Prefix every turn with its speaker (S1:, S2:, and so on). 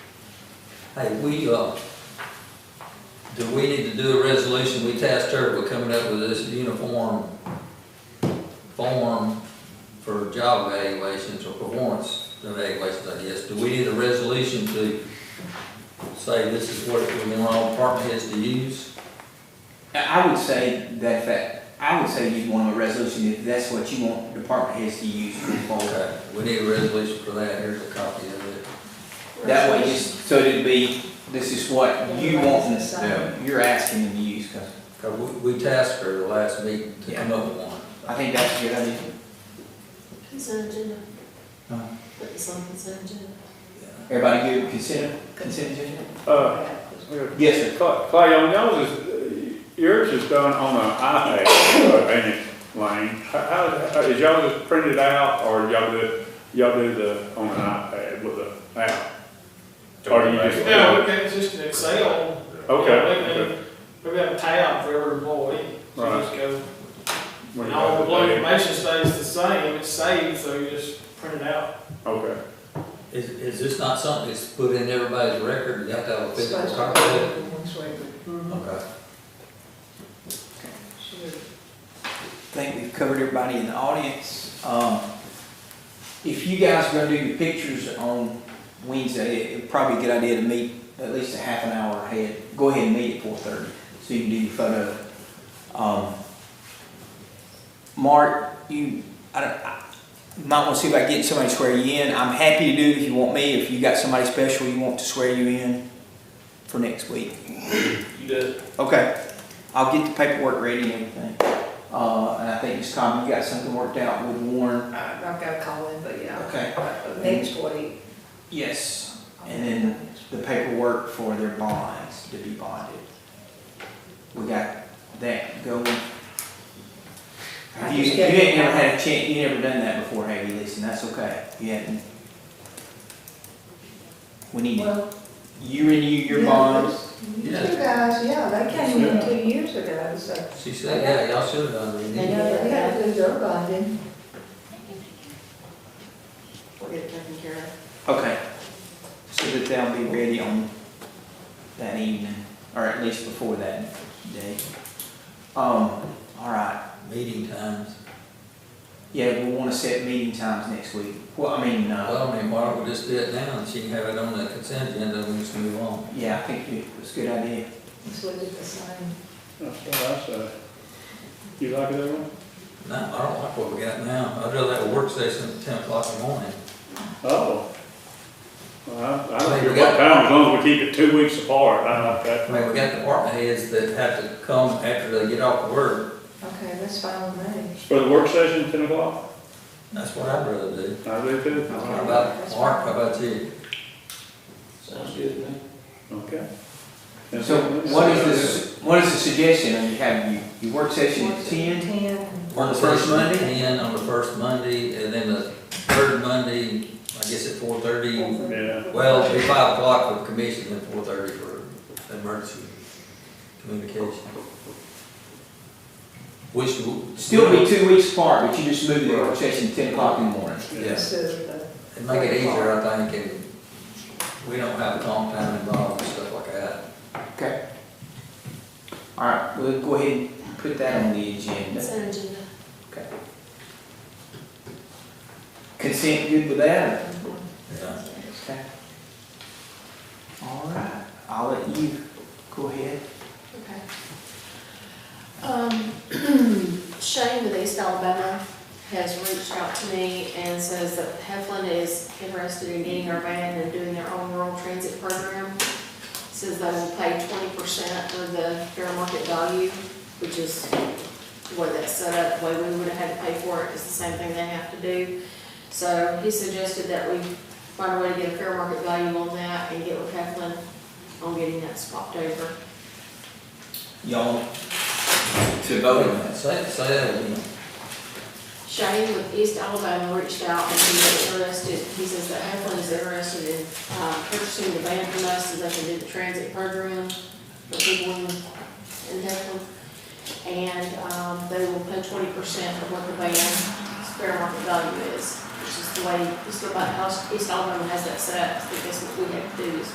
S1: Hey, we, uh, do we need to do a resolution? We tasked her with coming up with this uniform form for job evaluations or performance evaluations, I guess. Do we need a resolution to say this is what we want all department heads to use?
S2: I I would say that, that, I would say you'd want a resolution if that's what you want department heads to use for fall.
S1: Okay, we need a resolution for that. Here's a copy of it.
S2: That way, just, so it'd be, this is what you want,
S3: Everybody's the same.
S2: you're asking them to use, cause
S1: Cause we, we tasked her the last meeting to come up with one.
S2: I think that's a good idea.
S3: Consent agenda.
S2: Huh?
S3: Put this on consent agenda.
S2: Everybody good, consider, consent agenda?
S4: Uh,
S2: Yes, sir.
S4: Clay, Clay, on yours is, yours is done on an iPad, uh, ain't it, Lane? How- How, how, is y'all just printed out, or y'all do, y'all do the, on an iPad with the app? Or do you just?
S5: Yeah, we can, it's just an Excel. Yeah,
S4: Okay,
S5: we- we- We've got a tab for every employee, so you just go,
S4: okay.
S5: and all the blue information stays the same, it's saved, so you just print it out.
S4: Okay,
S1: Is, is this not something that's put in everybody's record? You have to have a physical
S3: Supposed
S1: copy of it?
S3: to be one way, but, mm,
S1: Okay.
S3: sure.
S2: I think we've covered everybody in the audience. Um, if you guys are gonna do your pictures on Wednesday, it- it'd probably be a good idea to meet at least a half an hour ahead. Go ahead and meet at four thirty, so you can do your photo. Um, Mark, you, I don't, I you might wanna see if I can get somebody to swear you in. I'm happy to do it if you want me, if you got somebody special you want to swear you in for next week.
S5: You did.
S2: Okay, I'll get the paperwork ready and everything. Uh, and I think, Ms. Cobb, you got something worked out with Warren?
S3: I- Uh, I've got to call in, but yeah.
S2: Okay.
S3: Uh, Next week.
S2: Yes. And then the paperwork for their bonds to be bonded. We got that going.
S3: I
S2: You,
S3: just
S2: you
S3: get-
S2: ain't never had a chance, you never done that before, have you, Lisa? And that's okay. You haven't. We need,
S3: Well,
S2: you renew your
S3: yeah,
S2: bonds.
S3: You guys, yeah, they came in two years ago, so.
S1: She said, yeah, y'all should have done it.
S3: And they had to do their bonding. We'll get it taken care of.
S2: Okay. So that they'll be ready on that evening, or at least before that day. Um, all right,
S1: Meeting times.
S2: yeah, we wanna set meeting times next week. Well, I mean, uh,
S1: Well, I mean, why don't we just do it now and she can have it on the consent agenda and we just move on?
S2: yeah, I think it was a good idea.
S3: So we did the same.
S4: that's what I said. You like it, everyone?
S1: No, I don't like what we got now. I'd rather have a work session at ten o'clock in the morning.
S4: Oh. Well, I, I
S1: Wait,
S4: don't care
S1: we
S4: what
S1: got-
S4: time, as long as we keep it two weeks apart, I like
S1: I
S4: that.
S1: mean, we got department heads that have to come after they get off work.
S3: Okay, that's fine with me.
S4: For the work session, ten o'clock,
S1: That's what I'd rather do.
S4: I do too.
S1: How about, Mark, how about you?
S5: Sounds good to me.
S4: Okay. And
S2: So what is the, su- what is the suggestion? Are you having, you, you work session at ten?
S3: Ten.
S2: On the first Monday?
S1: Ten on the first Monday and then the third Monday, I guess at four thirty.
S4: Yeah,
S1: Well, it'd be five o'clock for commission and four thirty for emergency communication. Which. w-
S2: Still be two weeks apart, but you just move the work session to ten o'clock in the morning.
S4: yeah.
S3: So the-
S1: It'd make it easier, I think, and we don't have comp time involved and stuff like that.
S2: Okay. All right, we'll go ahead and put that on the agenda.
S3: Consent agenda.
S2: Okay. Consent good with that?
S1: Yeah.
S2: Okay. All right, I'll let you go ahead.
S6: Okay. Um, Shane with East Alabama has reached out to me and says that Heflin is interested in getting our van and doing their own rural transit program. Says they will pay twenty percent of the fair market value, which is the way that's set up, the way we would have had to pay for it, it's the same thing they have to do. So he suggested that we find a way to get a fair market value on that and get with Heflin on getting that swapped over.
S2: Y'all to vote on this.
S1: Say, say that again.
S6: Shane with East Alabama reached out and he was interested, he says that Heflin is interested in uh, purchasing the van from us so they can do the transit program for people in in Heflin. And um, they will pay twenty percent of what the van's fair market value is, which is the way, just about how East Alabama has that set up, I think that's what we have to do is